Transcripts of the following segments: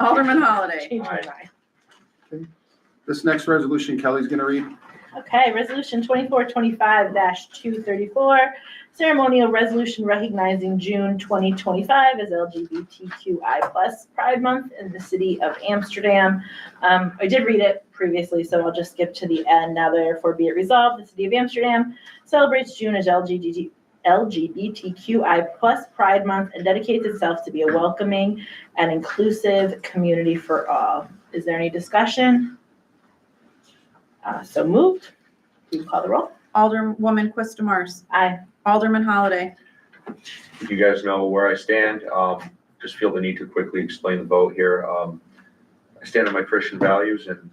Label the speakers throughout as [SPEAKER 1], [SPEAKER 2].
[SPEAKER 1] Alderman Holliday.
[SPEAKER 2] Change my mind.
[SPEAKER 3] This next resolution Kelly's gonna read.
[SPEAKER 2] Okay, resolution twenty-four twenty-five two thirty-four, ceremonial resolution recognizing June twenty twenty-five as LGBTQI plus Pride Month in the city of Amsterdam. Um, I did read it previously, so I'll just skip to the end. Now therefore be it resolved, the city of Amsterdam celebrates June as LGBT LGBTQI plus Pride Month and dedicates itself to be a welcoming and inclusive community for all. Is there any discussion? Uh, so moved. Please call the roll.
[SPEAKER 1] Alderwoman Quista Mars.
[SPEAKER 2] Aye.
[SPEAKER 1] Alderman Holliday.
[SPEAKER 4] You guys know where I stand. Um, just feel the need to quickly explain the vote here. Um, I stand on my Christian values and,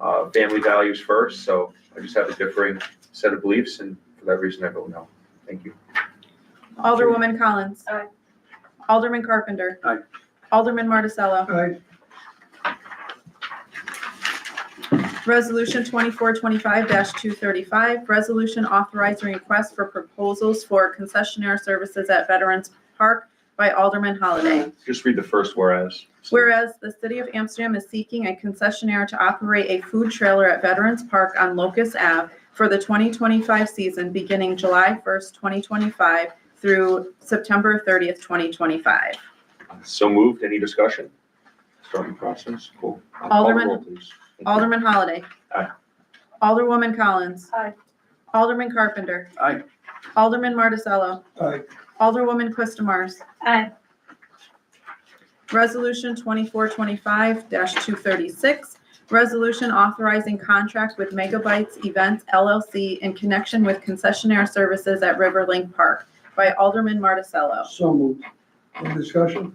[SPEAKER 4] uh, family values first, so I just have a differing set of beliefs and for that reason I vote no. Thank you.
[SPEAKER 1] Alderwoman Collins.
[SPEAKER 2] Aye.
[SPEAKER 1] Alderman Carpenter.
[SPEAKER 3] Aye.
[SPEAKER 1] Alderman Marticello.
[SPEAKER 3] Aye.
[SPEAKER 1] Resolution twenty-four twenty-five two thirty-five, resolution authorizing requests for proposals for concessionaire services at Veterans Park by Alderman Holliday.
[SPEAKER 4] Just read the first whereas.
[SPEAKER 1] Whereas the city of Amsterdam is seeking a concessionaire to operate a food trailer at Veterans Park on Locust Ave for the 2025 season beginning July 1st, 2025 through September 30th, 2025.
[SPEAKER 4] So moved. Any discussion? Starting process. Cool. Uh, call the
[SPEAKER 1] Alderman-
[SPEAKER 4] roll, please. Thank you.
[SPEAKER 1] Alderman Holliday.
[SPEAKER 4] Aye.
[SPEAKER 1] Alderwoman Collins.
[SPEAKER 2] Aye.
[SPEAKER 1] Alderman Carpenter.
[SPEAKER 3] Aye.
[SPEAKER 1] Alderman Marticello.
[SPEAKER 3] Aye.
[SPEAKER 1] Alderwoman Quistamars.
[SPEAKER 2] Aye.
[SPEAKER 1] Resolution twenty-four twenty-five two thirty-six, resolution authorizing contract with Megabytes Events LLC in connection with concessionaire services at Riverlink Park by Alderman Marticello.
[SPEAKER 5] So moved. Any discussion?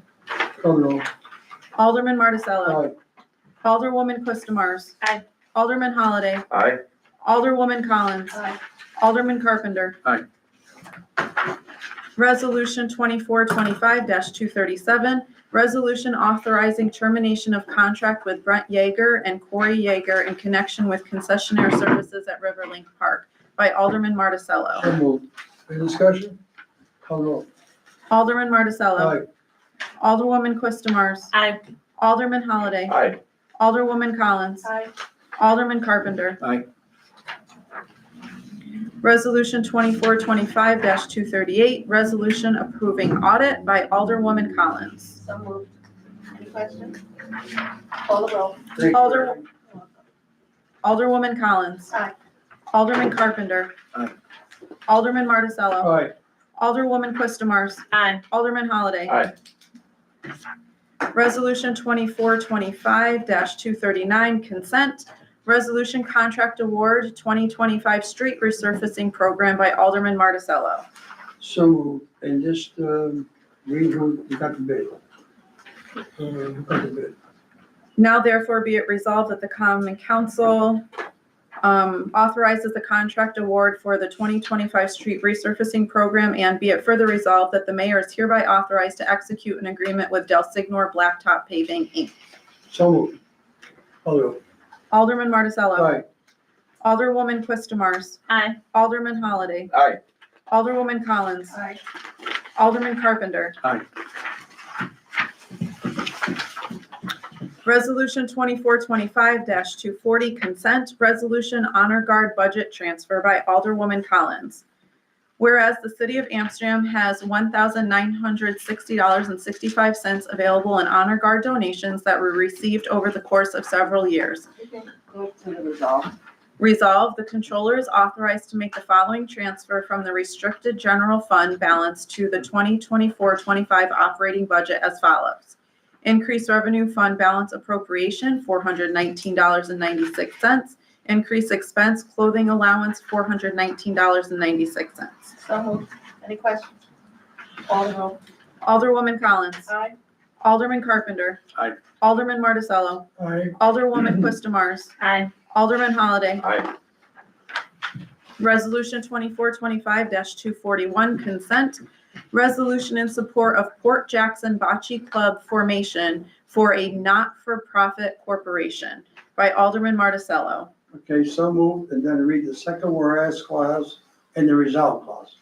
[SPEAKER 5] Call the roll.
[SPEAKER 1] Alderman Marticello.
[SPEAKER 5] Aye.
[SPEAKER 1] Alderwoman Quistamars.
[SPEAKER 2] Aye.
[SPEAKER 1] Alderman Holliday.
[SPEAKER 4] Aye.
[SPEAKER 1] Alderwoman Collins.
[SPEAKER 2] Aye.
[SPEAKER 1] Alderman Carpenter.
[SPEAKER 3] Aye.
[SPEAKER 1] Resolution twenty-four twenty-five two thirty-seven, resolution authorizing termination of contract with Brent Yeager and Corey Yeager in connection with concessionaire services at Riverlink Park by Alderman Marticello.
[SPEAKER 5] So moved. Any discussion? Call the roll.
[SPEAKER 1] Alderman
[SPEAKER 2] Uh,
[SPEAKER 1] Marticello.
[SPEAKER 5] Aye.
[SPEAKER 1] Alderwoman Quistamars.
[SPEAKER 2] Aye.
[SPEAKER 1] Alderman Holliday.
[SPEAKER 4] Aye.
[SPEAKER 1] Alderwoman Collins.
[SPEAKER 2] Aye.
[SPEAKER 1] Alderman Carpenter.
[SPEAKER 3] Aye.
[SPEAKER 1] Resolution twenty-four twenty-five two thirty-eight, resolution approving audit by Alderwoman Collins.
[SPEAKER 2] So moved. Any questions? Call the roll.
[SPEAKER 5] Thank you.
[SPEAKER 1] Alder- Alderwoman Collins.
[SPEAKER 2] Aye.
[SPEAKER 1] Alderman Carpenter.
[SPEAKER 3] Aye.
[SPEAKER 1] Alderman Marticello.
[SPEAKER 5] Aye.
[SPEAKER 1] Alderwoman Quistamars.
[SPEAKER 2] Aye.
[SPEAKER 1] Alderman Holliday.
[SPEAKER 4] Aye.
[SPEAKER 1] Resolution twenty-four twenty-five two thirty-nine, consent. Resolution contract award twenty twenty-five street resurfacing program by Alderman Marticello.
[SPEAKER 5] So moved. And just, um, read who we got the bid. Uh, Who got the bid?
[SPEAKER 1] Now therefore be it resolved that the common council um, authorizes the contract award for the 2025 street resurfacing program and be it further resolved that the mayor is hereby authorized to execute an agreement with Del Signor Blacktop Paving, Inc.
[SPEAKER 5] So moved. Call the roll.
[SPEAKER 1] Alderman Marticello.
[SPEAKER 5] Aye.
[SPEAKER 1] Alderwoman Quistamars.
[SPEAKER 2] Aye.
[SPEAKER 1] Alderman Holliday.
[SPEAKER 4] Aye.
[SPEAKER 1] Alderwoman Collins.
[SPEAKER 2] Aye.
[SPEAKER 1] Alderman Carpenter.
[SPEAKER 3] Aye.
[SPEAKER 1] Resolution twenty-four twenty-five two forty, consent resolution honor guard budget transfer by Alderwoman Collins. Whereas the city of Amsterdam has one thousand nine hundred sixty dollars and sixty-five cents available in honor guard donations that were received over the course of several years.
[SPEAKER 6] Move to the resolve.
[SPEAKER 1] Resolve, the controller is authorized to make the following transfer from the restricted general fund balance to the 2024-25 operating budget as follows. Increase revenue fund balance appropriation, $419.96. Increase expense clothing allowance, $419.96.
[SPEAKER 2] So moved. Any questions? Call the roll.
[SPEAKER 1] Alderwoman Collins.
[SPEAKER 2] Aye.
[SPEAKER 1] Alderman Carpenter.
[SPEAKER 3] Aye.
[SPEAKER 1] Alderman Marticello.
[SPEAKER 5] Aye.
[SPEAKER 1] Alderwoman Quistamars.
[SPEAKER 2] Aye.
[SPEAKER 1] Alderman Holliday.
[SPEAKER 4] Aye.
[SPEAKER 1] Resolution twenty-four twenty-five two forty-one, consent. Resolution in support of Port Jackson Bocce Club formation for a not-for-profit corporation by Alderman Marticello.
[SPEAKER 5] Okay, so moved. And then read the second whereas clause and the resolve clause.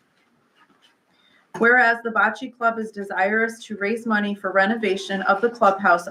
[SPEAKER 1] Whereas the Bocce Club is desirous to raise money for renovation of the clubhouse